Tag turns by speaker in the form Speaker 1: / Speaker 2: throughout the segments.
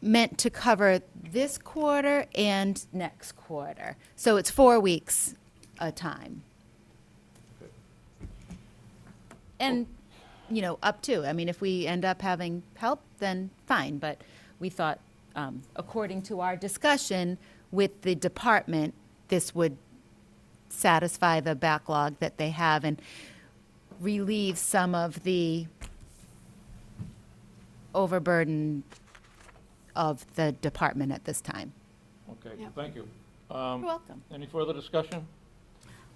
Speaker 1: meant to cover this quarter and next quarter. So it's four weeks a time. And, you know, up to, I mean, if we end up having help, then fine, but we thought, um, according to our discussion with the department, this would satisfy the backlog that they have and relieve some of the overburden of the department at this time.
Speaker 2: Okay,
Speaker 3: Yeah.
Speaker 2: thank you. Um,
Speaker 1: You're welcome.
Speaker 2: Any further discussion?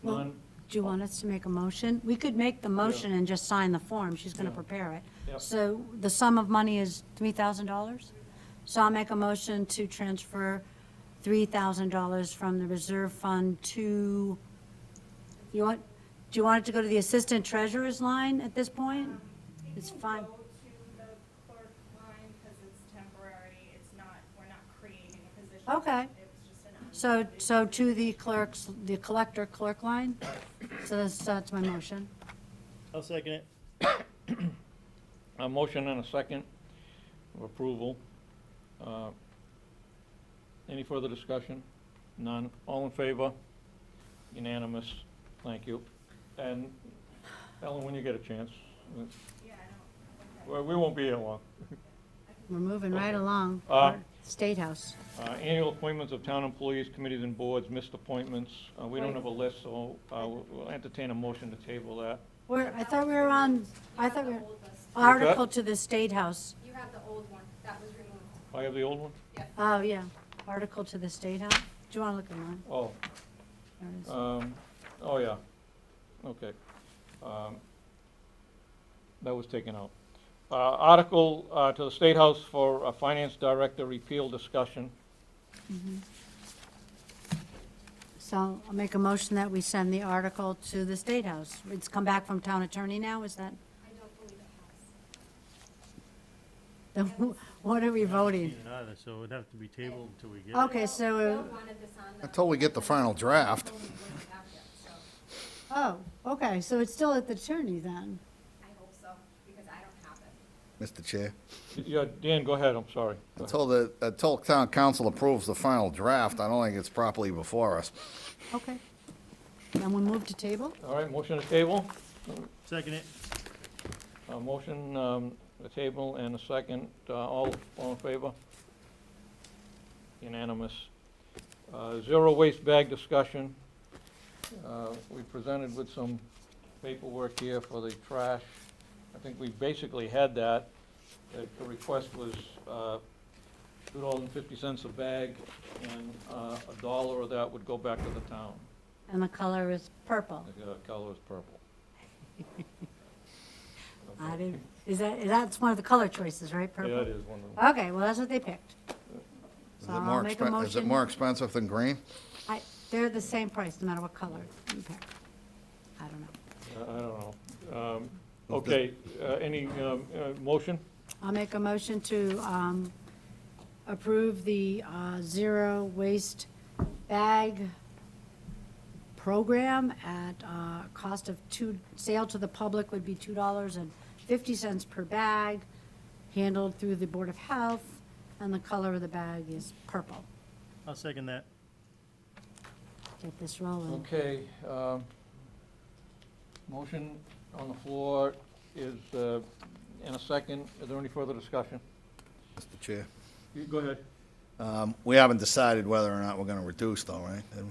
Speaker 3: Well,
Speaker 2: None?
Speaker 3: Do you want us to make a motion? We could make the motion and just sign the form. She's going to
Speaker 2: Yeah.
Speaker 3: prepare it.
Speaker 2: Yep.
Speaker 3: So the sum of money is $3,000? So I'll make a motion to transfer $3,000 from the reserve fund to, you want, do you want it to go to the assistant treasurer's line at this point? It's fine.
Speaker 4: Go to the clerk line because it's temporary. It's not, we're not creating a position.
Speaker 3: Okay.
Speaker 4: It was just an.
Speaker 3: So, so to the clerks, the collector clerk line? So that's, that's my motion.
Speaker 5: I'll second it.
Speaker 2: A motion and a second of approval. Uh, Any further discussion? None. All in favor? Unanimous. Thank you. And Ellen, when you get a chance, uh,
Speaker 4: Yeah, I don't. okay.
Speaker 2: well, we won't be here long.
Speaker 3: We're moving right along.
Speaker 2: Uh,
Speaker 3: State House.
Speaker 2: Uh, Annual appointments of town employees, committees and boards, missed appointments. Uh, We don't have a list, so uh, we'll we'll entertain a motion to table that.
Speaker 3: We're, I thought we were on, I thought we were, article to the State House.
Speaker 4: You have the old one. That was removed.
Speaker 2: I have the old one?
Speaker 3: Oh, yeah, article to the State House. Do you want to look at mine?
Speaker 2: Oh,
Speaker 3: There it is.
Speaker 2: Um, oh, yeah, okay. Um, That was taken out. Uh, article, uh, to the State House for a Finance Director repeal discussion.
Speaker 3: So I'll make a motion that we send the article to the State House. It's come back from town attorney now, is that? I don't believe it has. What are we voting?
Speaker 5: Either Either, so it'd have to be tabled until we get it.
Speaker 3: Okay, so,
Speaker 6: Until we get the final draft.
Speaker 3: oh, okay, so it's still at the attorney then?
Speaker 4: I hope so, because I don't have it.
Speaker 6: Mr. Chair,
Speaker 2: Yeah, Dan, go ahead, I'm sorry. Go ahead.
Speaker 6: until the, until town council approves the final draft, I don't think it's properly before us.
Speaker 3: Okay. And we move to table?
Speaker 2: All right, motion to table,
Speaker 5: Second it.
Speaker 2: a motion, um, to table and a second, uh, all, all in favor? Unanimous. Uh, zero waste bag discussion. Uh, we presented with some paperwork here for the trash. I think we basically had that. The the request was, uh, two dollars and fifty cents a bag, and, uh, a dollar of that would go back to the town.
Speaker 3: And the color is purple.
Speaker 2: The uh, color is purple.
Speaker 3: I didn't, is that, that's one of the color choices, right? Purple?
Speaker 2: Yeah, it is one of them.
Speaker 3: Okay, well, that's what they picked.
Speaker 6: Is
Speaker 3: So
Speaker 6: it
Speaker 3: I'll
Speaker 6: more
Speaker 3: Uh, make a
Speaker 6: expen- Is it
Speaker 3: motion.
Speaker 6: more expensive than green?
Speaker 3: I, they're the same price, no matter what color you pick. I don't know.
Speaker 2: I I don't know. Um, Okay, uh, any um, uh, motion?
Speaker 3: I'll make a motion to um, approve the uh, zero waste bag program at uh cost of two, sale to the public would be $2.50 per bag, handled through the Board of Health, and the color of the bag is purple.
Speaker 5: I'll second that.
Speaker 3: Get this rolling.
Speaker 2: Okay. um, Motion on the floor is, uh, in a second, is there any further discussion?
Speaker 6: Mr. Chair,
Speaker 2: You Go ahead.
Speaker 6: um, we haven't decided whether or not we're gonna reduce though, right? Have we?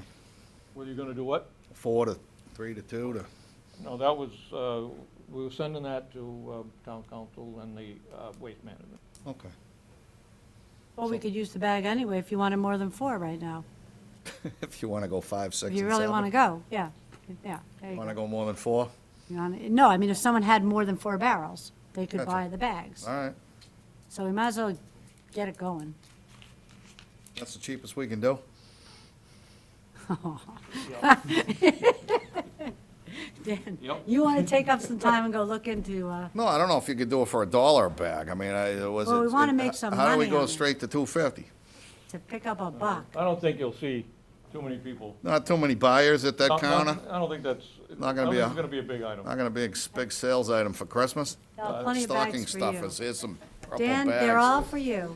Speaker 2: Were you going to do what?
Speaker 6: Four to, three to two to,
Speaker 2: No, that was, uh, we were sending that to uh, town council and the uh, waste management.
Speaker 6: okay.
Speaker 3: Well, we could use the bag anyway if you wanted more than four right now.
Speaker 6: If you wanna go five, six,
Speaker 3: If
Speaker 6: and
Speaker 3: you really want to
Speaker 6: seven.
Speaker 3: go, yeah, yeah. there you
Speaker 6: Wanna
Speaker 3: go.
Speaker 6: go more than four?
Speaker 3: You wanna- No, I mean, if someone had more than four barrels, they could
Speaker 6: Gotcha.
Speaker 3: buy the bags.
Speaker 6: All right,
Speaker 3: So we might as well get it going.
Speaker 6: that's the cheapest we can do.
Speaker 3: Dan,
Speaker 2: Yep.
Speaker 3: you want to take up some time and go look into, uh,
Speaker 6: No, I don't know if you could do it for a dollar a bag. I mean, I, it was.
Speaker 3: Well, we
Speaker 6: it-
Speaker 3: wanna
Speaker 6: it-
Speaker 3: make some
Speaker 6: How do we
Speaker 3: money on
Speaker 6: go
Speaker 3: it.
Speaker 6: straight to two fifty?
Speaker 3: to pick up a buck.
Speaker 2: I don't think you'll see too many people.
Speaker 6: Not too many buyers at that
Speaker 2: Not- not-
Speaker 6: counter?
Speaker 2: I don't think that's, I
Speaker 6: Not
Speaker 2: don't
Speaker 6: gonna be
Speaker 2: think
Speaker 6: a-
Speaker 2: it's going to be a big item.
Speaker 6: Not gonna be a s- big sales item for Christmas?
Speaker 3: Plenty of
Speaker 6: Stocking
Speaker 3: bags for you.
Speaker 6: stuffers, here's some purple
Speaker 3: Dan, they're
Speaker 6: bags.
Speaker 3: all for you.